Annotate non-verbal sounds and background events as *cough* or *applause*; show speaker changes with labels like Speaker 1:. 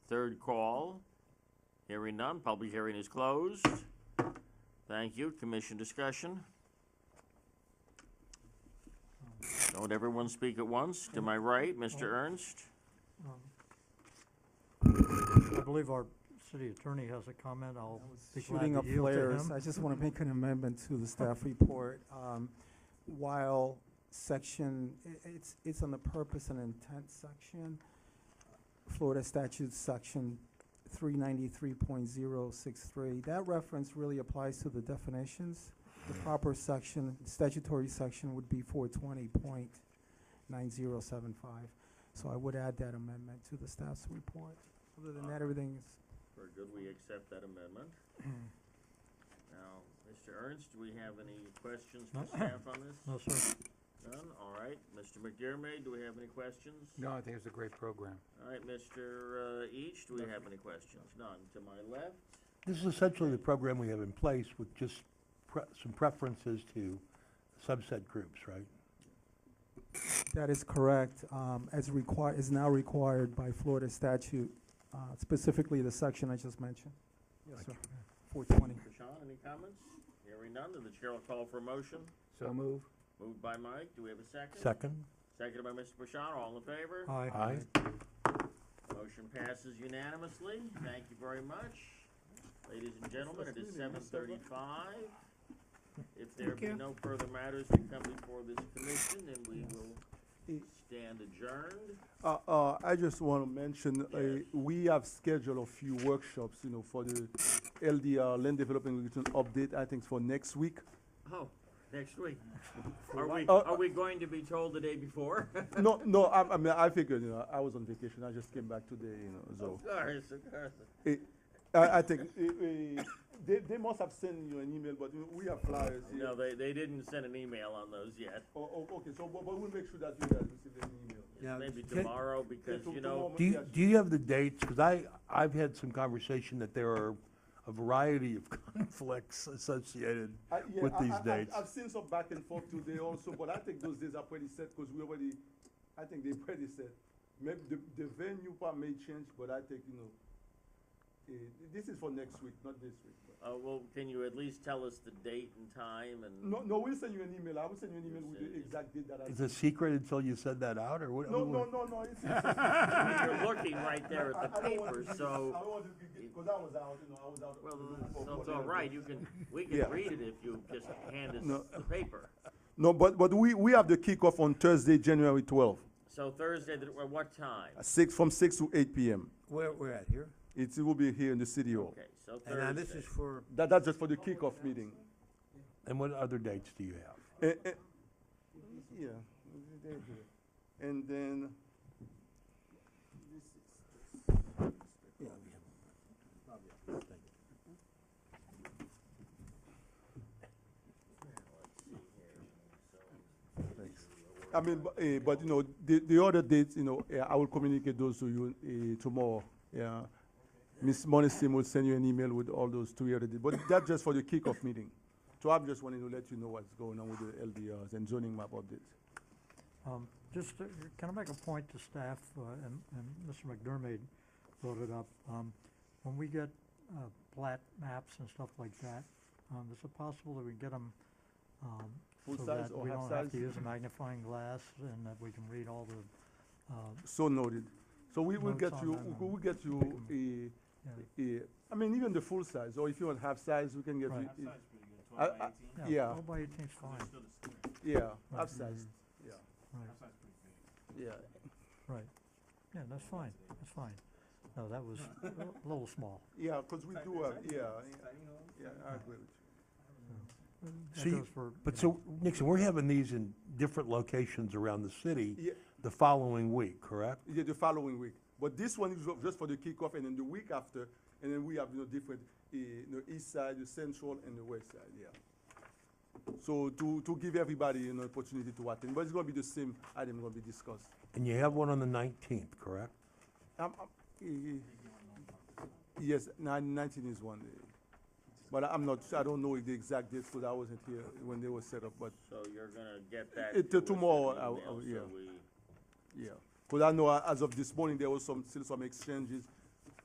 Speaker 1: Hearing none, public hearing is closed. Thank you, commission discussion. Don't everyone speak at once. To my right, Mr. Ernst.
Speaker 2: Um, I believe our city attorney has a comment. I'll be glad
Speaker 3: Shooting
Speaker 2: to
Speaker 3: up
Speaker 2: yield to
Speaker 3: flares,
Speaker 2: him.
Speaker 3: I just want to make an amendment to the staff report. Um, While section, i- it's, it's on the purpose and intent section, Florida statute section three ninety-three point zero six three, that reference really applies to the definitions. The proper section, statutory section would be four twenty point nine zero seven five. So I would add that amendment to the staff's report. Other than that, everything is
Speaker 1: Very good, we accept that amendment. *clears throat* Now, Mr. Ernst, do we have any questions for
Speaker 2: No.
Speaker 1: staff on this?
Speaker 2: No, sir.
Speaker 1: None, all right. Mr. McDermott, do we have any questions?
Speaker 4: No, I think it's a great program.
Speaker 1: All right, Mr. uh, Each, do we have any questions? None. To my left,
Speaker 5: This is essentially the program we have in place with just pre- some preferences to subset groups, right?
Speaker 3: That is correct, um, as required, is now required by Florida statute, uh, specifically the section I just mentioned. Yes, sir. Four twenty.
Speaker 1: Sean, any comments? Hearing none, then the chair will call for a motion.
Speaker 4: So move.
Speaker 1: Moved by Mike, do we have a second?
Speaker 5: Second?
Speaker 1: Seconded by Mr. Bashan, all in favor?
Speaker 2: Aye.
Speaker 5: Aye.
Speaker 1: Motion passes unanimously, thank you very much. Ladies and gentlemen, it is seven thirty-five. If there be no further matters to come before this commission, then we will stand adjourned.
Speaker 6: Uh, uh, I just want to mention,
Speaker 1: Yes.
Speaker 6: uh, we have scheduled a few workshops, you know, for the LDR, Land Development Regulation Update, I think for next week.
Speaker 1: Oh, next week. Are we,
Speaker 6: Uh,
Speaker 1: are we going to be told the day before?
Speaker 6: No, no, I, I mean, I figured, you know, I was on vacation, I just came back today, you know,
Speaker 1: *laughs*
Speaker 6: so.
Speaker 1: Of course, of course.
Speaker 6: Eh, I, I think, eh, eh, they, they must have sent you an email, but you know, we have flyers here.
Speaker 1: No, they, they didn't send an email on those yet.
Speaker 6: Oh, oh, okay, so, but, but we'll make sure that you guys receive an email.
Speaker 5: Yeah,
Speaker 1: Maybe
Speaker 5: can-
Speaker 1: tomorrow, because,
Speaker 6: Yeah, to-
Speaker 1: you know,
Speaker 6: tomorrow,
Speaker 5: Do you,
Speaker 6: yes.
Speaker 5: do you have the dates? Because I, I've had some conversation that there are a variety of *laughs* conflicts associated
Speaker 6: I- yeah,
Speaker 5: with
Speaker 6: I-
Speaker 5: these
Speaker 6: I- I've-
Speaker 5: dates.
Speaker 6: I've seen some back and forth today also, but I think those days are pretty set because we already, I think they pretty set. Maybe the, the venue part may change, but I think, you know, eh, this is for next week, not this week. but-
Speaker 1: uh, well, can you at least tell us the date and time and?
Speaker 6: No, no, we'll send you an email. I will send you an email with the exact date that I.
Speaker 5: Is it secret until you said that out, or what?
Speaker 6: No, no,
Speaker 5: what-
Speaker 6: no, no, it's. it's-
Speaker 1: You're looking
Speaker 6: *laughs*
Speaker 1: right there
Speaker 6: I-
Speaker 1: at the
Speaker 6: I don't want
Speaker 1: paper,
Speaker 6: to be- I
Speaker 1: so,
Speaker 6: don't want to be, because I was out, you know, I was out.
Speaker 1: well, uh,
Speaker 6: you know, for-
Speaker 1: so it's
Speaker 6: for
Speaker 1: all
Speaker 6: the-
Speaker 1: right, you can, we can
Speaker 6: Yeah.
Speaker 1: read it if you just hand us
Speaker 6: No.
Speaker 1: the paper.
Speaker 6: No, but, but we, we have the kickoff on Thursday, January twelfth,
Speaker 1: So Thursday, the- at what time?
Speaker 6: six, from six to eight PM.
Speaker 7: Where we're at here,
Speaker 6: It's- It will be here in the city hall.
Speaker 1: Okay, so
Speaker 7: and
Speaker 6: uh,
Speaker 7: now this
Speaker 1: Thursday.
Speaker 7: is for,
Speaker 6: That, that's just for the kickoff meeting.
Speaker 5: And what other dates do you have?
Speaker 6: Eh, eh, Yeah, they do it. And then, I mean, bu- eh, but you know, the, the other dates, you know, eh, I will communicate those to you eh, tomorrow. Yeah. Ms. Monisim will send you an email with all those two other dates, but that's just for the kickoff meeting. So I'm just wanting to let you know what's going on with the LDRs and zoning map updates.
Speaker 2: Um, Just, to- can I make a point to staff, uh, and and Mr. McDermott brought it up. Um, When we get uh, plat maps and stuff like that, um, is it possible that we get them
Speaker 6: Full
Speaker 2: so
Speaker 6: size
Speaker 2: that
Speaker 6: or
Speaker 2: we
Speaker 6: half
Speaker 2: don't have to
Speaker 6: size?
Speaker 2: use a magnifying glass and that we can read all the, uh,
Speaker 6: So noted. So we will
Speaker 2: Notes
Speaker 6: get
Speaker 2: on
Speaker 6: you,
Speaker 2: that
Speaker 6: we will get you a,
Speaker 2: yeah,
Speaker 6: a, I mean, even the full size, or if you want half size, we can get
Speaker 2: Right.
Speaker 6: you. a- I-
Speaker 8: Twelve by
Speaker 6: I-
Speaker 8: eighteen,
Speaker 6: Yeah.
Speaker 2: twelve by eighteen's fine,
Speaker 8: still the square.
Speaker 6: Yeah,
Speaker 2: Right. Mm-hmm.
Speaker 6: half size, yeah,
Speaker 2: right.
Speaker 8: That's not pretty big.
Speaker 6: yeah.
Speaker 2: Right. Yeah, that's fine, that's fine. No, that was a little small.
Speaker 6: Yeah, because we do have, yeah, yeah,
Speaker 8: Tiny home.
Speaker 6: yeah, I agree with you.
Speaker 2: That
Speaker 5: So you-
Speaker 2: goes for,
Speaker 5: But
Speaker 2: you know,
Speaker 5: so, Nixon, we're having these in different locations around the city
Speaker 6: Yeah,
Speaker 5: the following week, correct?
Speaker 6: yeah, the following week. But this one is just for the kickoff, and then the week after, and then we have, you know, different, eh, you know, east side, the central, and the west side, yeah. So to, to give everybody, you know, opportunity to attend, but it's gonna be the same item gonna be discussed.
Speaker 5: And you have one on the 19th, correct?
Speaker 6: Um, um, eh, Yes, nine- 19 is one day. But I'm not, I don't know the exact date, because I wasn't here when they were set up, but,
Speaker 1: So you're gonna get that.
Speaker 6: It-
Speaker 1: to us in
Speaker 6: tomorrow,
Speaker 1: an
Speaker 6: I'll-
Speaker 1: email
Speaker 6: I'll-
Speaker 1: so
Speaker 6: yeah.
Speaker 1: we-
Speaker 6: yeah. Because I know uh, as of this morning, there was some, still some exchanges